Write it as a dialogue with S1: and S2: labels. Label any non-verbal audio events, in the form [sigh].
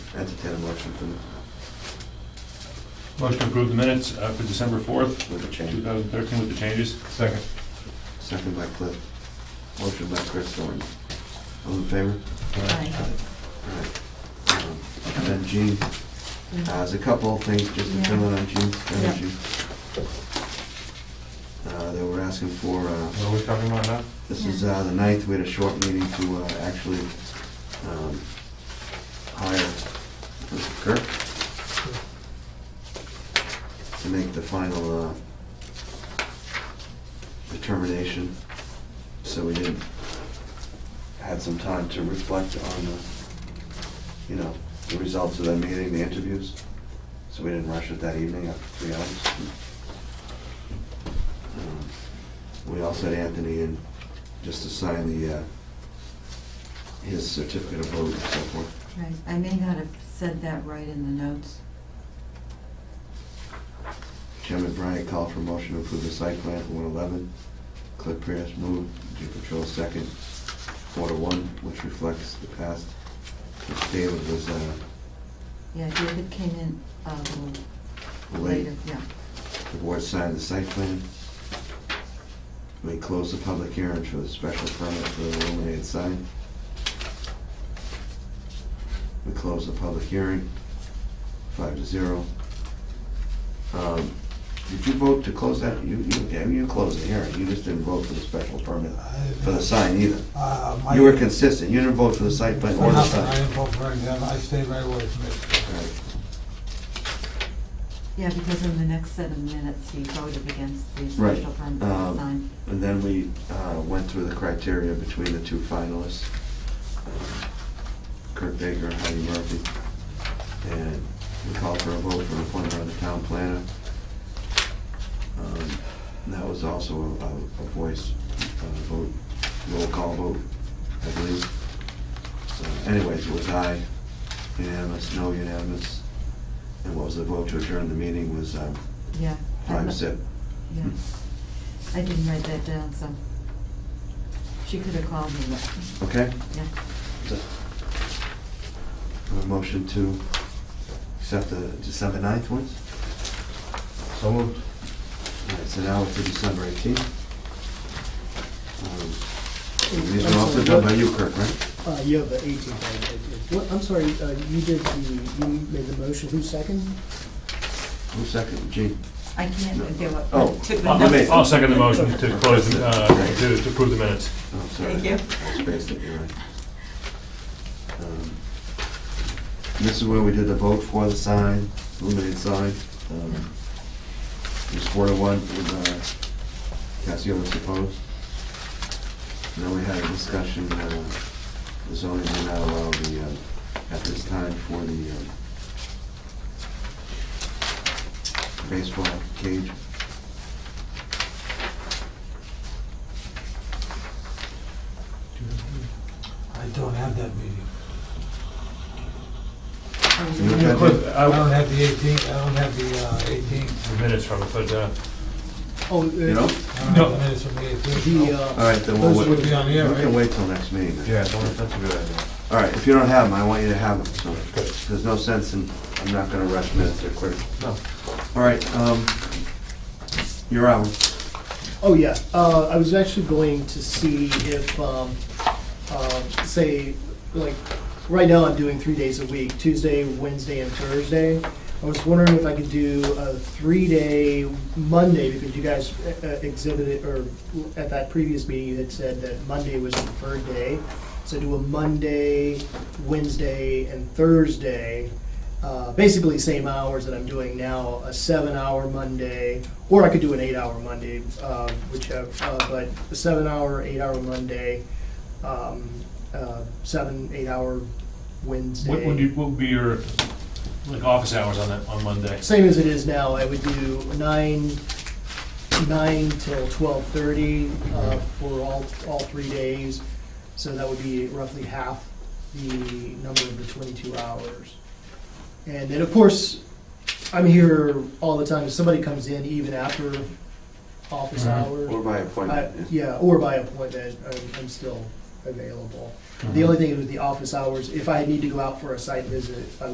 S1: Entertain a motion for this,
S2: Motion to approve the minutes uh, for December 4th,
S1: with the change.
S2: 2013 with the changes.
S3: Second.
S1: Second by Cliff. Motion by Chris Thornton. All in favor?
S4: Aye.
S1: Um, And then Gene, uh, there's a couple of things just to fill in on Gene's energy. Uh, They were asking for, uh,
S3: What are we talking about now?
S1: this is uh, the ninth, we had a short meeting to uh, actually um, hire Mr. Kirk to make the final uh, determination, so we didn't, had some time to reflect on the, you know, the results of that meeting, the interviews, so we didn't rush it that evening after three hours. Um, We also had Anthony in just to sign the, uh, his certificate of vote and so forth.
S4: Right, I may not have said that right in the notes.
S1: Chairman Bryant called for motion to approve the site plan for 111. Cliff Pierce moved, Jim Patrol second, four to one, which reflects the past. Mr. David was uh,
S4: Yeah, David came in uh, a little
S1: late.
S4: later, yeah.
S1: The board signed the site plan. We closed the public hearing for the special permit for the illuminated sign. We closed the public hearing, five to zero. Um, Did you vote to close that? You, you, yeah, you closed the hearing, you just didn't vote for the special permit for the sign either.
S5: Uh, my-
S1: You were consistent, you didn't vote for the site plan or the
S5: Nothing, I
S1: sign.
S5: didn't vote for it, I stayed right away from it.
S1: All right.
S4: Yeah, because in the next seven minutes, he voted against the
S1: Right,
S4: special permit
S1: um,
S4: sign.
S1: And then we uh, went through the criteria between the two finalists, uh, Kurt Baker and Heidi Murphy. And we called for a vote for appointment of the town planner. Um, and That was also a a voice uh, vote, roll call vote, I believe. So Anyways, it was aye, unanimous, no unanimous. And what was the vote to adjourn the meeting was um,
S4: Yeah. I
S1: five
S4: lo-
S1: zip.
S4: Yeah. I didn't write that down, so she could have called me, but,
S1: Okay?
S4: yeah.
S1: A motion to accept the December 9th ones?
S3: So moved.
S1: All right, so now it's the December 18th. Um, These are also done by you, Kirk, right?
S6: Uh, you have the 18th. right? It- it- what- I'm sorry, uh, you did the, you made the motion, who's second?
S1: Who second, Gene?
S4: I can't, do it.
S1: Oh,
S4: [laughs] Took the
S1: I'll make-
S4: notes.
S2: I'll I'll second the motion to close, the- uh, to to approve the minutes.
S1: Oh, sorry.
S4: Thank
S1: I
S4: you.
S1: Spaced it, you're right. Um, This is where we did the vote for the sign, illuminated sign. Um, It was four to one with uh, Cassiopus opposed. And Then we had a discussion, uh, the zoning did not allow the, uh, at this time, for the um, baseball cage.
S5: I don't have that meeting.
S1: You
S4: Oh,
S1: look at it?
S5: I don't have the 18th, I don't have the uh, 18th.
S2: The minutes from, it, but, uh,
S6: Oh, uh,
S1: You know?
S5: I don't
S2: No.
S5: have the minutes from the 18th.
S6: the,
S5: no.
S1: All
S6: uh,
S1: right, then we'll
S6: Those
S5: would
S1: wait.
S5: be on
S1: We
S5: here,
S1: can
S5: right?
S1: wait till next meeting. then.
S3: Yeah, don't- that's a good idea.
S1: All right, if you don't have them, I want you to have them, so there's no sense in, I'm not gonna rush minutes or quick.
S3: No.
S1: All right, um, you're out.
S6: oh, yeah, uh, I was actually going to see if, um, um, say, like, right now I'm doing three days a week, Tuesday, Wednesday, and Thursday. I was wondering if I could do a three-day Monday, because you guys uh, exhibited, or at that previous meeting, you had said that Monday was the preferred day. So do a Monday, Wednesday, and Thursday, uh, basically same hours that I'm doing now, a seven-hour Monday, or I could do an eight-hour Monday, uh, whichever, uh, but a seven-hour, eight-hour Monday, um, uh, seven, eight-hour Wednesday.
S2: what would you, what would be your, like, office hours on that, on Monday?
S6: Same as it is now, I would do nine, nine till twelve thirty, uh, for all, all three days. So that would be roughly half the number of the twenty-two hours. And then, of course, I'm here all the time, if somebody comes in even after office
S2: Mhm.
S6: hours.
S1: Or by
S6: I-
S1: appointment.
S6: Uh, Yeah, or by appointment, I'm, I'm still available. The only thing is with the office hours, if I need to go out for a site visit, I